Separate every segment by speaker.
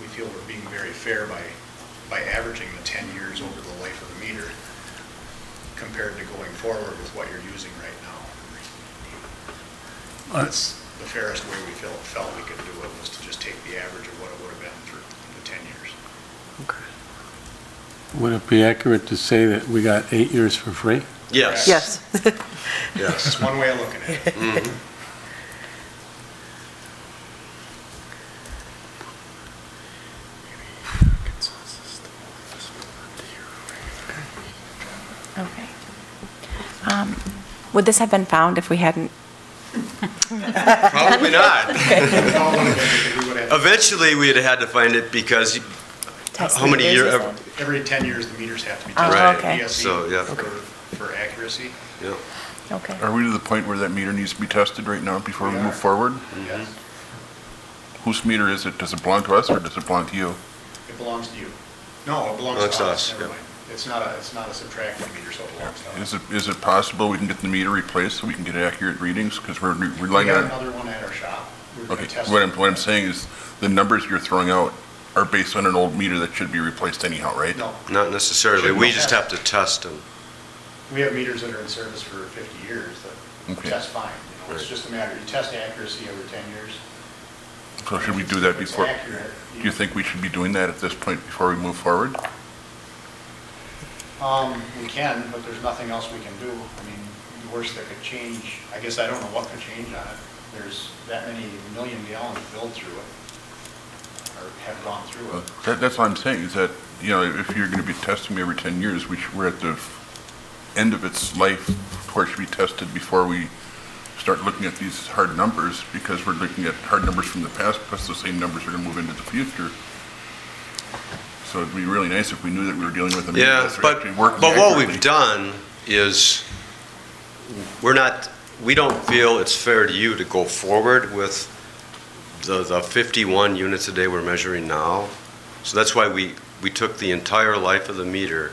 Speaker 1: we feel we're being very fair by, by averaging the 10 years over the life of the meter compared to going forward with what you're using right now. That's the fairest way we felt, felt we could do it, was to just take the average of what it would have been for the 10 years.
Speaker 2: Would it be accurate to say that we got eight years for free?
Speaker 3: Yes.
Speaker 4: Yes.
Speaker 3: Yes.
Speaker 1: That's one way of looking at it.
Speaker 5: Okay. Um, Would this have been found if we hadn't?
Speaker 3: Probably not.
Speaker 1: We would have-
Speaker 3: Eventually, we'd have had to find it because you-
Speaker 5: tested
Speaker 3: how many
Speaker 5: it?
Speaker 3: years?
Speaker 1: Every 10 years, the meters have to be
Speaker 5: Oh,
Speaker 1: tested.
Speaker 5: Right.
Speaker 1: by
Speaker 5: okay.
Speaker 1: DSE
Speaker 3: So, yeah.
Speaker 1: for- For accuracy.
Speaker 3: Yeah.
Speaker 5: Okay.
Speaker 6: Are we to the point where that meter needs to be tested right now before we
Speaker 1: We are.
Speaker 6: move forward?
Speaker 3: Mm-hmm.
Speaker 1: Yes.
Speaker 6: Whose meter is it? Does it belong to us or does it belong to you?
Speaker 1: It belongs to you. No, it belongs
Speaker 3: Belongs
Speaker 1: to
Speaker 3: to
Speaker 1: us,
Speaker 3: us,
Speaker 1: never
Speaker 3: yeah.
Speaker 1: mind. It's not a, it's not a subtracting meter, so it belongs to us.
Speaker 6: Is it, is it possible we can get the meter replaced so we can get accurate readings? Because we're re-
Speaker 1: We
Speaker 6: relying
Speaker 1: got
Speaker 6: on,
Speaker 1: another one at our shop. We're gonna
Speaker 6: okay,
Speaker 1: test
Speaker 6: what
Speaker 1: it.
Speaker 6: I'm, what I'm saying is the numbers you're throwing out are based on an old meter that should be replaced anyhow, right?
Speaker 1: No,
Speaker 3: Not necessarily.
Speaker 1: Should
Speaker 3: We
Speaker 1: we-
Speaker 3: just have to test them.
Speaker 1: we have meters that are in service for 50 years that
Speaker 6: Okay.
Speaker 1: test fine. you know, It's
Speaker 3: Right.
Speaker 1: just a matter, you test accuracy every 10 years.
Speaker 6: So should we do that
Speaker 1: If it's
Speaker 6: before?
Speaker 1: accurate,
Speaker 6: Do you think we should be doing that at this point before we move forward?
Speaker 1: Um, we can, but there's nothing else we can do. I mean, the worst that could change, I guess I don't know what could change on it. There's that many million gallons built through it, or have gone through
Speaker 6: Uh,
Speaker 1: it.
Speaker 6: That, that's what I'm saying, is that, you know, if you're going to be testing me every 10 years, we should, we're at the f- end of its life, where it should be tested before we start looking at these hard numbers, because we're looking at hard numbers from the past, plus the same numbers are going to move into the future. So it'd be really nice if we knew that we were dealing with a meter
Speaker 3: Yeah,
Speaker 6: that's
Speaker 3: but,
Speaker 6: actually working
Speaker 3: but what
Speaker 6: accurately.
Speaker 3: we've done is, we're not, we don't feel it's fair to you to go forward with the, the 51 units a day we're measuring now. So that's why we, we took the entire life of the meter,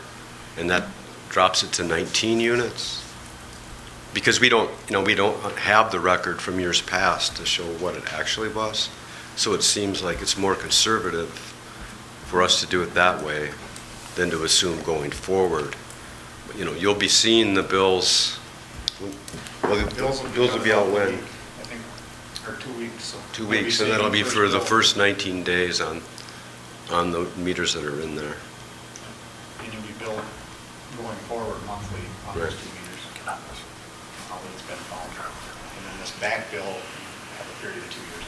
Speaker 3: and that drops it to 19 units. Because we don't, you know, we don't have the record from years past to show what it actually was. So it seems like it's more conservative for us to do it that way than to assume going forward. But, You know, you'll be seeing the bills, well, the bills will be out
Speaker 1: I
Speaker 3: when?
Speaker 1: think, or two weeks, so.
Speaker 3: Two
Speaker 1: we'll be
Speaker 3: weeks, and that'll
Speaker 1: seeing
Speaker 3: be for the
Speaker 1: bill
Speaker 3: first 19 days on, on the meters that are in there.
Speaker 1: And you'll be billed going forward monthly on those
Speaker 3: Right.
Speaker 1: two meters. How it's been found. And then this back bill, you have a period of two years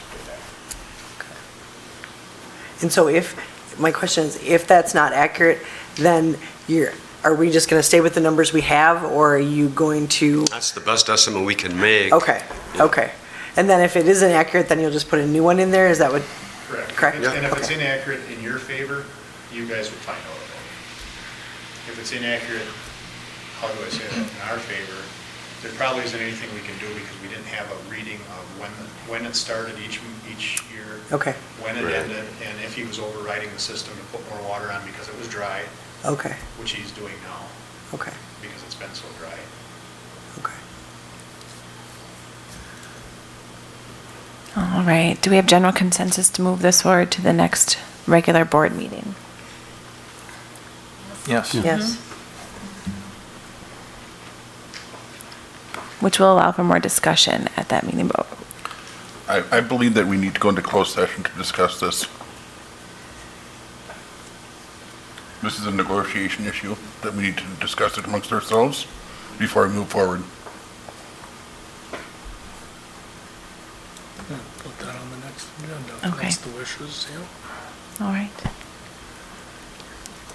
Speaker 1: to pay that.
Speaker 4: And so if, my question is, if that's not accurate, then you're, are we just going to stay with the numbers we have, or are you going to?
Speaker 3: That's the best estimate we can make.
Speaker 4: Okay, okay. And then if it isn't accurate, then you'll just put a new one in there? Is that what?
Speaker 1: Correct.
Speaker 4: Correct?
Speaker 1: And- And if it's
Speaker 4: Okay.
Speaker 1: inaccurate in your favor, you guys would find out about it. If it's inaccurate, how do I say that, in our favor, there probably isn't anything we can do because we didn't have a reading of when, when it started each, each year.
Speaker 4: Okay.
Speaker 1: When it
Speaker 3: Right.
Speaker 1: ended, and if he was overriding the system to put more water on because it was dry,
Speaker 4: Okay,
Speaker 1: which he's doing now
Speaker 4: okay,
Speaker 1: because it's been so dry.
Speaker 4: okay.
Speaker 5: All right. Do we have general consensus to move this forward to the next regular board meeting?
Speaker 7: Yes.
Speaker 4: Yes.
Speaker 5: Which will allow for more discussion at that meeting, but
Speaker 6: I, I believe that we need to go into closed session to discuss this. This is a negotiation issue that we need to discuss it amongst ourselves before we move forward.
Speaker 7: Put that on the next agenda.
Speaker 5: Okay.
Speaker 7: That's the wishes, yeah.
Speaker 5: all right.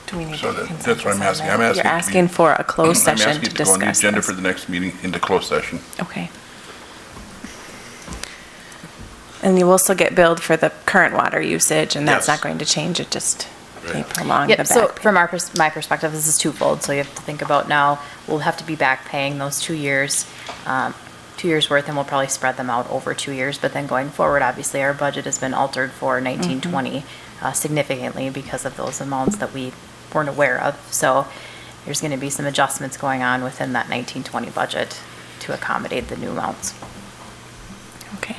Speaker 5: Do we need
Speaker 6: So
Speaker 5: to
Speaker 6: that-
Speaker 5: consensus
Speaker 6: that's what I'm
Speaker 5: on
Speaker 6: asking.
Speaker 5: that?
Speaker 6: I'm asking
Speaker 5: You're
Speaker 6: to be-
Speaker 5: asking for a closed
Speaker 6: I'm
Speaker 5: session
Speaker 6: asking
Speaker 5: to
Speaker 6: it go on the
Speaker 5: discuss
Speaker 6: agenda for
Speaker 5: this.
Speaker 6: the next meeting into closed session.
Speaker 5: Okay. And you will still get billed for the current water usage, and that's
Speaker 3: Yes.
Speaker 5: not going to change, it just may
Speaker 3: Right.
Speaker 5: prolong the
Speaker 8: Yep,
Speaker 5: back
Speaker 8: so
Speaker 5: pay.
Speaker 8: from our, pers- my perspective, this is twofold, so you have to think about now, we'll have to be back paying those two years, um, two years' worth, and we'll probably spread them out over two years, but then going forward, obviously, our budget has been altered for nineteen
Speaker 5: Mm-hmm.
Speaker 8: twenty uh, significantly because of those amounts that we weren't aware of, so there's gonna be some adjustments going on within that nineteen twenty budget to accommodate the new amounts.
Speaker 5: Okay.